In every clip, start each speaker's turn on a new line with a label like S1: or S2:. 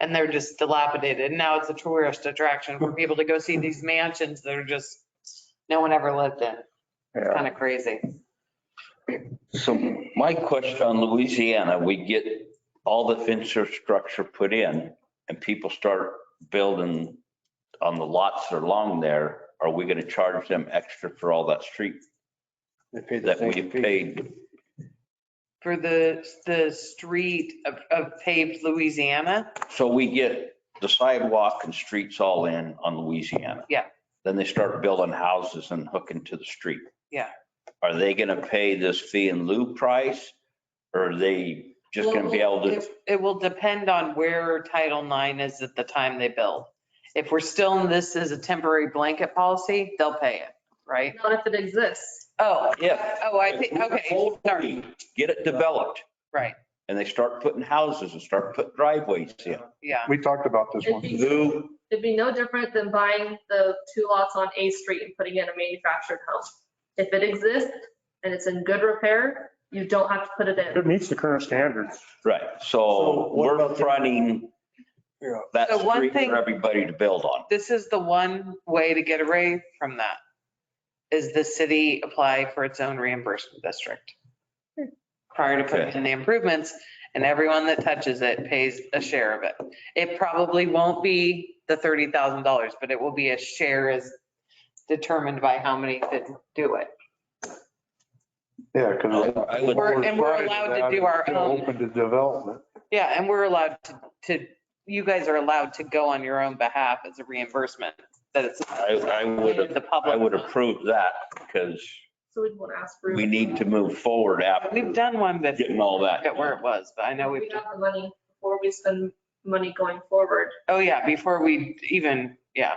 S1: and they're just dilapidated. Now it's a tourist attraction for people to go see these mansions that are just, no one ever lived in. It's
S2: Yeah.
S1: kind of crazy.
S3: So my question on Louisiana, we get all the infrastructure put in and people start building on the lots that are along there. Are we going to charge them extra for all that street
S2: They pay the
S3: that we
S2: same fee.
S3: paid?
S1: For the, the street of, of paved Louisiana,
S3: So we get the sidewalk and streets all in on Louisiana.
S1: Yeah.
S3: Then they start building houses and hooking to the street.
S1: Yeah.
S3: Are they going to pay this fee and lieu price? Or are they just going to be able to?
S1: It- It will depend on where Title IX is at the time they build. If we're still in this as a temporary blanket policy, they'll pay it, right?
S4: Not if it exists.
S1: Oh,
S3: Yeah.
S1: oh, I think, okay, sorry,
S3: Get it developed
S1: right,
S3: and they start putting houses and start putting driveways in.
S1: yeah,
S2: We talked about this
S4: It'd
S2: one.
S4: be,
S3: Lou,
S4: it'd be no different than buying the two lots on A Street and putting in a manufactured home. If it exists and it's in good repair, you don't have to put it in.
S2: It meets the current standards.
S3: right,
S2: So
S3: so
S2: what
S3: we're
S2: about the-
S3: fronting
S2: Yeah.
S3: that
S1: So one
S3: street
S1: thing-
S3: for everybody to build on.
S1: this is the one way to get away from that, is the city apply for its own reimbursement district prior to putting
S3: Okay.
S1: in the improvements, and everyone that touches it pays a share of it. It probably won't be the $30,000, but it will be a share as determined by how many that do it.
S2: Yeah, because.
S3: I would-
S1: We're- and we're allowed to do our own.
S2: Open to development.
S1: Yeah, and we're allowed to- to, you guys are allowed to go on your own behalf as a reimbursement, that it's
S3: I, I would,
S1: the public.
S3: I would approve that because
S4: So we'd want to ask for.
S3: we need to move forward after
S1: We've done one that,
S3: getting all that.
S1: at where it was, but I know
S4: We
S1: we've,
S4: have the money before we spend money going forward.
S1: oh yeah, before we even, yeah.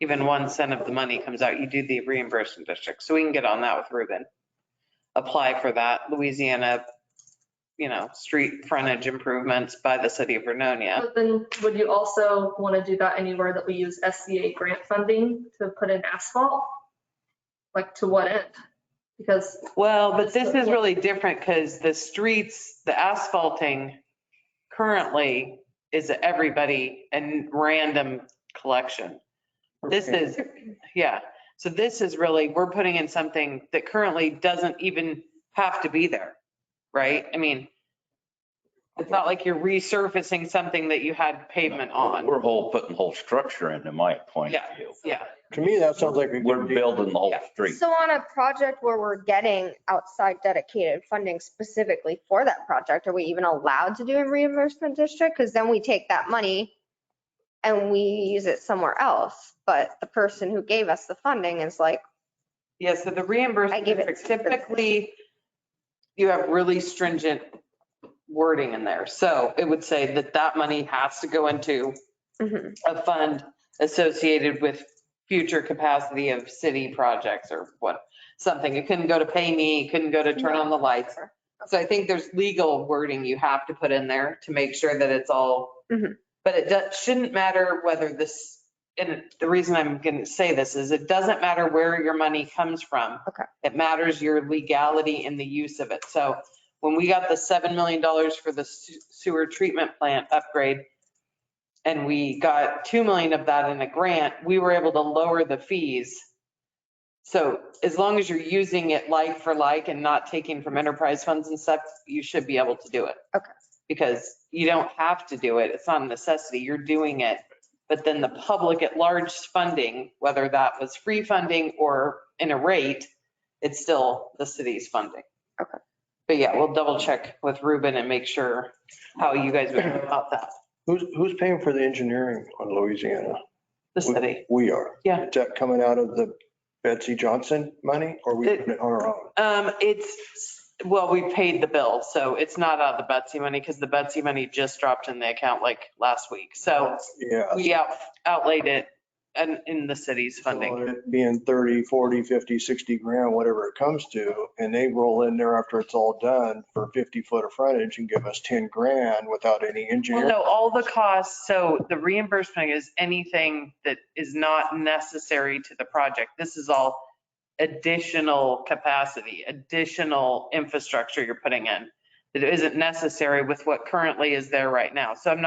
S1: Even one cent of the money comes out, you do the reimbursement district, so we can get on that with Ruben. Apply for that Louisiana, you know, street frontage improvements by the city of Vernonia.
S4: But then would you also want to do that anywhere that we use SCA grant funding to put in asphalt? Like to what end? Because
S1: Well, but this is really different because the streets, the asphalting currently is everybody and random collection. This is, yeah, so this is really, we're putting in something that currently doesn't even have to be there, right? I mean, it's not like you're resurfacing something that you had pavement on.
S3: We're whole, putting whole structure into my point of
S1: Yeah.
S3: view.
S1: Yeah,
S2: To me, that sounds like. a good
S3: We're
S2: deal.
S3: building the whole
S1: Yeah.
S3: street.
S5: So on a project where we're getting outside dedicated funding specifically for that project, are we even allowed to do a reimbursement district? Because then we take that money and we use it somewhere else, but the person who gave us the funding is like,
S1: yeah, so the
S5: I
S1: reimbursement
S5: give it-
S1: district, typically, you have really stringent wording in there. So it would say that that money has to go into
S5: mhm,
S1: a fund associated with future capacity of city projects or what, something. It couldn't go to pay me, it couldn't go to turn on the lights. So I think there's legal wording you have to put in there to make sure that it's all,
S5: Mhm.
S1: but it does- shouldn't matter whether this, and the reason I'm going to say this is it doesn't matter where your money comes from.
S5: Okay.
S1: It matters your legality in the use of it. So when we got the $7 million for the se- sewer treatment plant upgrade, and we got 2 million of that in a grant, we were able to lower the fees. So as long as you're using it like for like and not taking from enterprise funds and stuff, you should be able to do it.
S5: Okay.
S1: Because you don't have to do it. It's not a necessity. You're doing it. But then the public at large funding, whether that was free funding or in a rate, it's still the city's funding.
S5: Okay.
S1: But yeah, we'll double check with Ruben and make sure how you guys would feel about that,
S2: Who's, who's paying for the engineering on Louisiana?
S1: the city.
S2: We are.
S1: Yeah.
S2: Is that coming out of the Betsy Johnson money or we
S1: It-
S2: put it on our own?
S1: Um, it's, well, we paid the bill, so it's not out of the Betsy money because the Betsy money just dropped in the account like last week. So
S2: Yeah.
S1: we out- outlaid it in, in the city's funding.
S2: So it Being 30, 40, 50, 60 grand, whatever it comes to, and they roll in there after it's all done for 50 foot of frontage and give us 10 grand without any
S1: Well,
S2: engineering.
S1: no, all the costs, so the reimbursement is anything that is not necessary to the project. This is all additional capacity, additional infrastructure you're putting in that isn't necessary with what currently is there right now. So I'm not